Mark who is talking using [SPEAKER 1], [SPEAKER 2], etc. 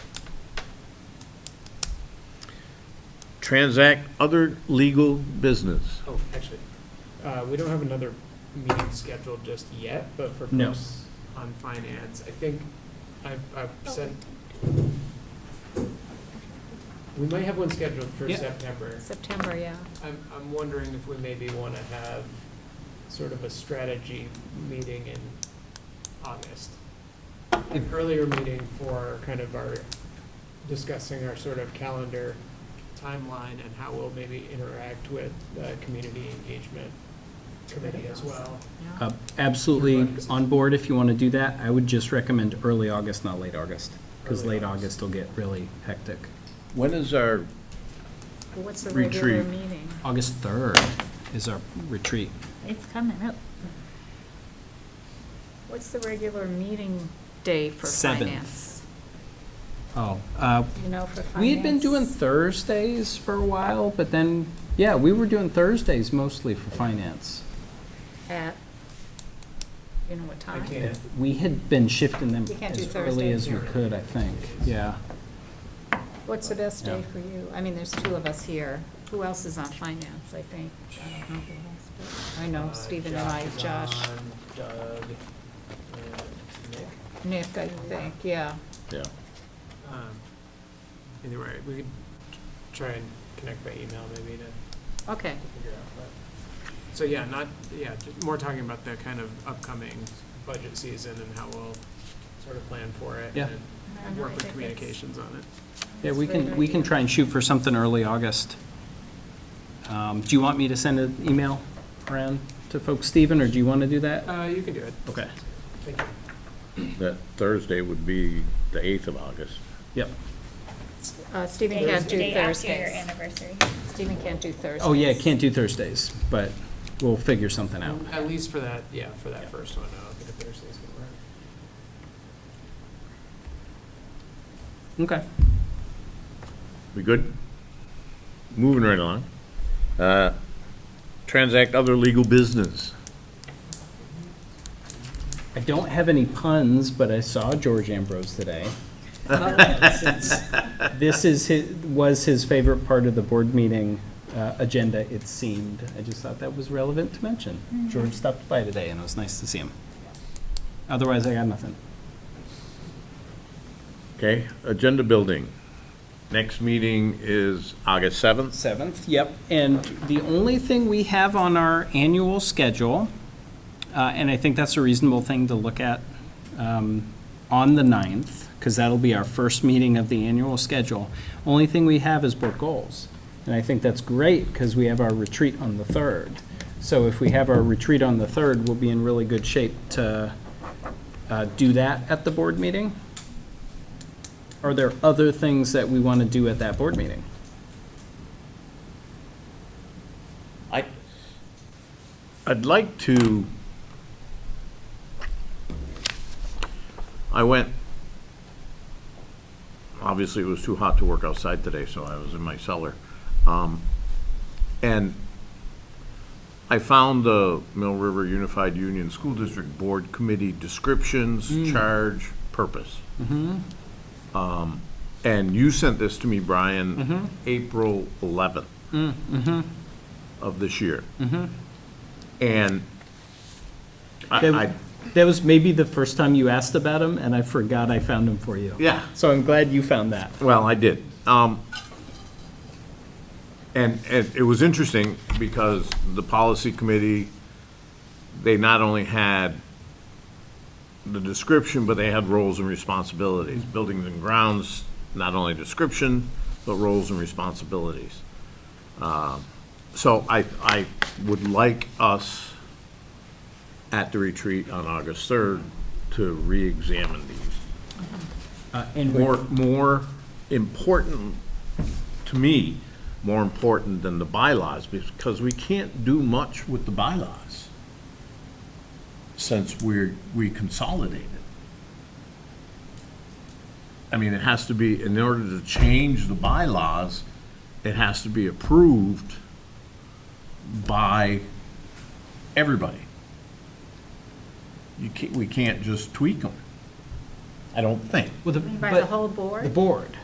[SPEAKER 1] transact other legal business.
[SPEAKER 2] Oh, actually, uh, we don't have another meeting scheduled just yet, but for
[SPEAKER 1] No.
[SPEAKER 2] folks on finance, I think I've,
[SPEAKER 3] Oh,
[SPEAKER 2] I've sent. We might have one scheduled for
[SPEAKER 4] Yeah.
[SPEAKER 2] September.
[SPEAKER 3] September, yeah.
[SPEAKER 2] I'm, I'm wondering if we maybe want to have sort of a strategy meeting in August. An earlier meeting for kind of our, discussing our sort of calendar timeline and how we'll maybe interact with the community engagement committee as well.
[SPEAKER 3] Yeah.
[SPEAKER 4] Uh, Absolutely on board if you want to do that. I would just recommend early August, not late August, because
[SPEAKER 2] Early
[SPEAKER 4] late
[SPEAKER 2] August.
[SPEAKER 4] August will get really hectic.
[SPEAKER 1] When is our,
[SPEAKER 3] But What's the regular
[SPEAKER 1] Retreat.
[SPEAKER 3] meeting?
[SPEAKER 4] August 3rd is our retreat.
[SPEAKER 3] It's coming up. What's the regular meeting day for
[SPEAKER 4] Seventh.
[SPEAKER 3] finance?
[SPEAKER 4] Oh, uh,
[SPEAKER 3] You know, for finance?
[SPEAKER 4] we had been doing Thursdays for a while, but then, yeah, we were doing Thursdays mostly for finance.
[SPEAKER 3] At, you know what
[SPEAKER 2] I
[SPEAKER 3] time?
[SPEAKER 2] can't,
[SPEAKER 4] We had been shifting them
[SPEAKER 3] You can't do
[SPEAKER 4] as early as we
[SPEAKER 2] Thursdays.
[SPEAKER 4] could, I think, yeah.
[SPEAKER 3] What's the best day
[SPEAKER 4] Yeah.
[SPEAKER 3] for you? I mean, there's two of us here. Who else is on finance, I think? I don't know who else, but I know
[SPEAKER 2] uh,
[SPEAKER 3] Stephen and I,
[SPEAKER 2] is
[SPEAKER 3] Josh,
[SPEAKER 2] on, Doug, and Nick.
[SPEAKER 3] Nick, I think, yeah.
[SPEAKER 1] yeah,
[SPEAKER 2] Um, Either way, we could try and connect by email maybe to
[SPEAKER 3] Okay,
[SPEAKER 2] to figure out, but, so yeah, not, yeah, ju- more talking about the kind of upcoming budget season and how we'll sort of plan for it.
[SPEAKER 4] Yeah.
[SPEAKER 2] and-
[SPEAKER 3] I
[SPEAKER 2] And
[SPEAKER 3] know, I
[SPEAKER 2] work with
[SPEAKER 3] think it's-
[SPEAKER 2] communications on it.
[SPEAKER 4] Yeah,
[SPEAKER 3] That's
[SPEAKER 4] we
[SPEAKER 3] a very
[SPEAKER 4] can,
[SPEAKER 3] good
[SPEAKER 4] we can
[SPEAKER 3] idea.
[SPEAKER 4] try and shoot for something early August. Um, Do you want me to send an email around to folks, Stephen, or do you want to do that?
[SPEAKER 2] Uh, you can do it,
[SPEAKER 4] Okay.
[SPEAKER 2] thank you.
[SPEAKER 1] that Thursday would be the 8th of August.
[SPEAKER 4] Yep.
[SPEAKER 3] Uh, Stephen
[SPEAKER 5] Day-
[SPEAKER 3] can't do
[SPEAKER 5] day after your
[SPEAKER 3] Thursdays.
[SPEAKER 5] anniversary.
[SPEAKER 3] Stephen can't do Thursdays.
[SPEAKER 4] Oh, yeah, can't do Thursdays, but we'll figure something out.
[SPEAKER 2] At least for that, yeah, for that first one, I don't think a Thursday's gonna work.
[SPEAKER 4] Okay.
[SPEAKER 1] We good? Moving right along. Uh, Transact other legal business.
[SPEAKER 4] I don't have any puns, but I saw George Ambrose today. This is, his was his favorite part of the board meeting uh, agenda, it seemed. I just thought that was relevant to mention. George stopped by today, and it was nice to see him. Otherwise, I got nothing.
[SPEAKER 1] Okay, agenda building. Next meeting is August 7th.
[SPEAKER 4] 7th, yep. And the only thing we have on our annual schedule, uh, and I think that's a reasonable thing to look at um, on the 9th, because that'll be our first meeting of the annual schedule, only thing we have is board goals. And I think that's great, because we have our retreat on the 3rd. So if we have our retreat on the 3rd, we'll be in really good shape to uh, do that at the board meeting. Are there other things that we want to do at that board meeting?
[SPEAKER 1] I, I'd like to, I went, obviously it was too hot to work outside today, so I was in my cellar. Um, And I found the Mill River Unified Union School District Board Committee descriptions, charge, purpose. Um, And you sent this to me, Brian, April 11th of this year. And I, I,
[SPEAKER 4] That, that was maybe the first time you asked about him, and I forgot I found him for you.
[SPEAKER 1] Yeah.
[SPEAKER 4] So I'm glad you found that.
[SPEAKER 1] well, I did. Um, and, and it was interesting because the policy committee, they not only had the description, but they had roles and responsibilities. Buildings and grounds, not only description, but roles and responsibilities. Um, So I, I would like us at the retreat on August 3rd to re-examine these.
[SPEAKER 4] Uh, And we-
[SPEAKER 1] more, more important, to me, more important than the bylaws, because we can't do much with the bylaws since we're, we consolidated. I mean, it has to be, in order to change the bylaws, it has to be approved by everybody. You can't, we can't just tweak them, I don't think.
[SPEAKER 4] well, the-
[SPEAKER 3] By the
[SPEAKER 4] but
[SPEAKER 3] whole board?
[SPEAKER 4] The board.